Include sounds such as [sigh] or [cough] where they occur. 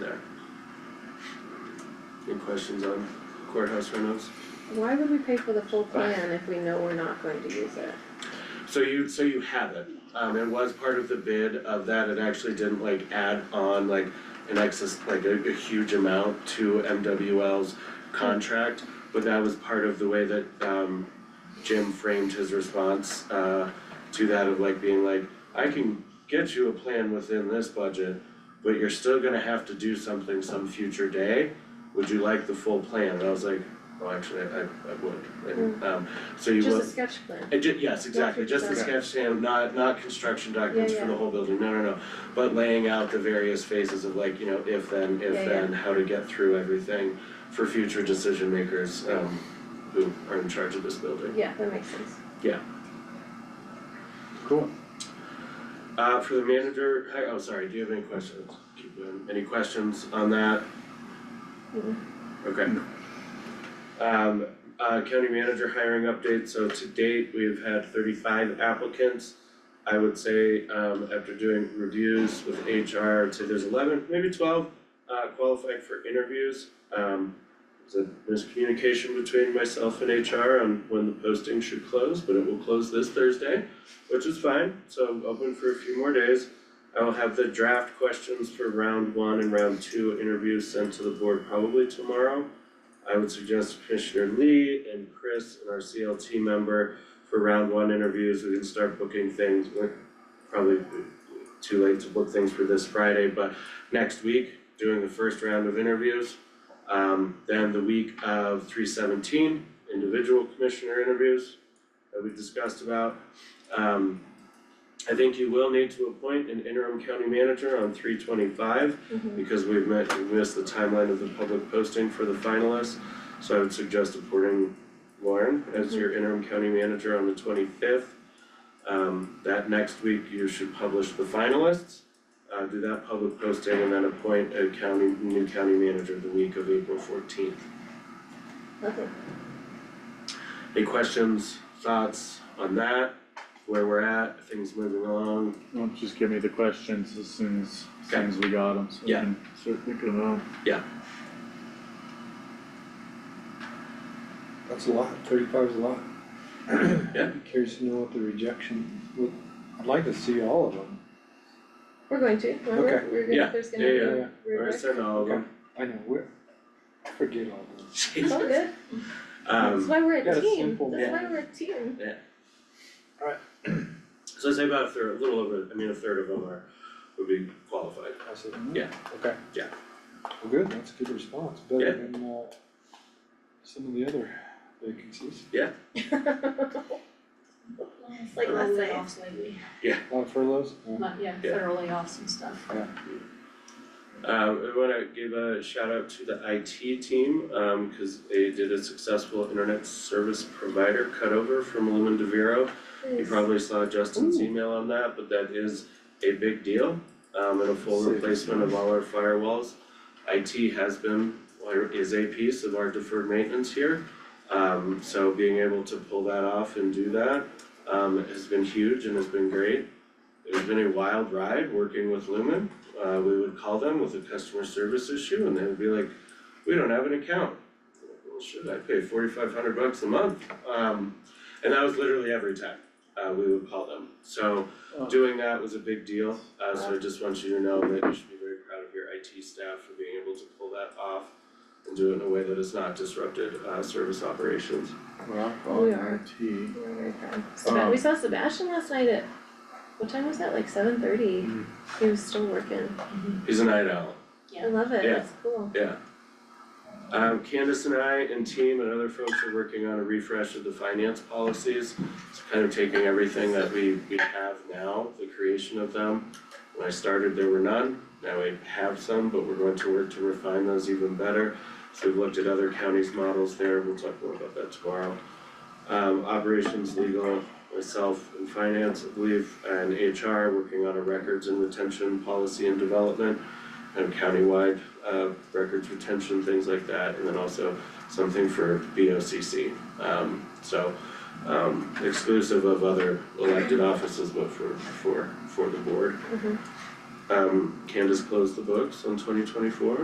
Any questions on courthouse renovations? Why would we pay for the full plan if we know we're not going to use it? So you, so you have it, um, it was part of the bid of that, it actually didn't like add on like an excess, like a, a huge amount to MWL's contract, but that was part of the way that, um, Jim framed his response, uh, to that of like being like, I can get you a plan within this budget, but you're still gonna have to do something some future day, would you like the full plan? And I was like, well, actually, I, I would, and, um, so you will. Mm. Just a sketch plan. Uh, ju- yes, exactly, just the Okay. sketch stamp, not, not construction documents for yeah. the whole building, no, no, no. But laying out the various phases of like, you know, if then, if Yeah, yeah. then, how to get through everything for future decision makers, um, who are in charge of this building. Yeah, that makes sense. Cool. Uh, for the manager, hi- oh, sorry, do you have any questions? Keep going. Any questions on that? Mm-mm. Okay. Um, uh, county manager hiring update, so to date, we've had thirty-five applicants. I would say, um, after doing reviews with HR, I'd say there's eleven, maybe twelve, uh, qualified for interviews. Um, there's a miscommunication between myself and HR on when the posting should close, but it will close this Thursday which is fine, so I'm open for a few more days. I will have the draft questions for round one and round two interviews sent to the board probably tomorrow. I would suggest Commissioner Lee and Chris and our CLT member for round one interviews, we can start booking things, we're probably too late to book things for this Friday, but next week, doing the first round of interviews. Um, then the week of three seventeen, individual commissioner interviews that we discussed about. Um, I think you will need to appoint an interim county manager on three twenty-five Mhm. because we've met, we missed the timeline of the public posting for the finalists. So I would suggest appointing Lauren as your interim county manager on the twenty-fifth. Um, that next week you should publish the finalists, uh, do that public posting and then appoint a county, new county manager the week of April fourteenth. Lovely. Any questions, thoughts on that, where we're at, things moving along? Well, just give me the questions as soon as, as soon as we got them, so we Yeah. can start thinking about 'em. That's a lot, thirty-five is a lot. Yeah. [clears throat] Curious to know what the rejection, would- I'd like to see all of them. We're going to, remember, Okay. we're gonna, Yeah. there's gonna Yeah, be. yeah. we're Or back. send all of them. I know, we're, I forget all of them. It's all good, that's [laughs] Um, why we're a Got a team, that's simple why one. we're a team. so I'd say about a third, a little over, I mean, a third of them are, would be qualified. I said, hmm, Yeah. Okay. Yeah. Well, good, that's a good response, Yeah. better than uh some of the other vacancies. It's like last Federal night, layoffs lately, A lot of furloughs, yeah. Not- yeah, Yeah. federal layoffs and stuff. Um, I wanna give a shout out to the IT team, um, cause they did a successful internet service provider cutover from Lumen to Vero. You Yes. probably saw Justin's Ooh. email on that, but that is a big deal, um, and a full Save. replacement of all our firewalls. IT has been, or is a piece of our deferred maintenance here, um, so being able to pull that off and do that, um, has been huge and has been great. It's been a wild ride working with Lumen, uh, we would call them with a customer service issue and they would be like, we don't have an account. Well, should I pay forty-five hundred bucks a month? Um, and that was literally every time, uh, we would call them. So Oh. doing that was a big deal, uh, so I just want you to know that you should be very proud of your IT staff for being able to pull that off and do it in a way that has not disrupted, uh, service operations. Rock Oh, we on are. IT. We're very proud. Seb- we saw Sebastian last night at, what time was that, like seven thirty? Mhm. He was still working, He's a night owl. I love it, Yeah. that's cool. Um, Candace and I and team and other folks are working on a refresh of the finance policies. It's kind of taking everything that we, we have now, the creation of them. When I started, there were none, now we have some, but we're going to work to refine those even better. So we've looked at other counties' models there, we'll talk more about that tomorrow. Um, operations, legal, myself and finance, I believe, and HR, working on a records and retention policy and development kind of countywide uh records retention, things like that, and then also something for BOCC. Um so um exclusive of other elected offices, but for for for the board. Mhm. Um Candace closed the books on twenty twenty four,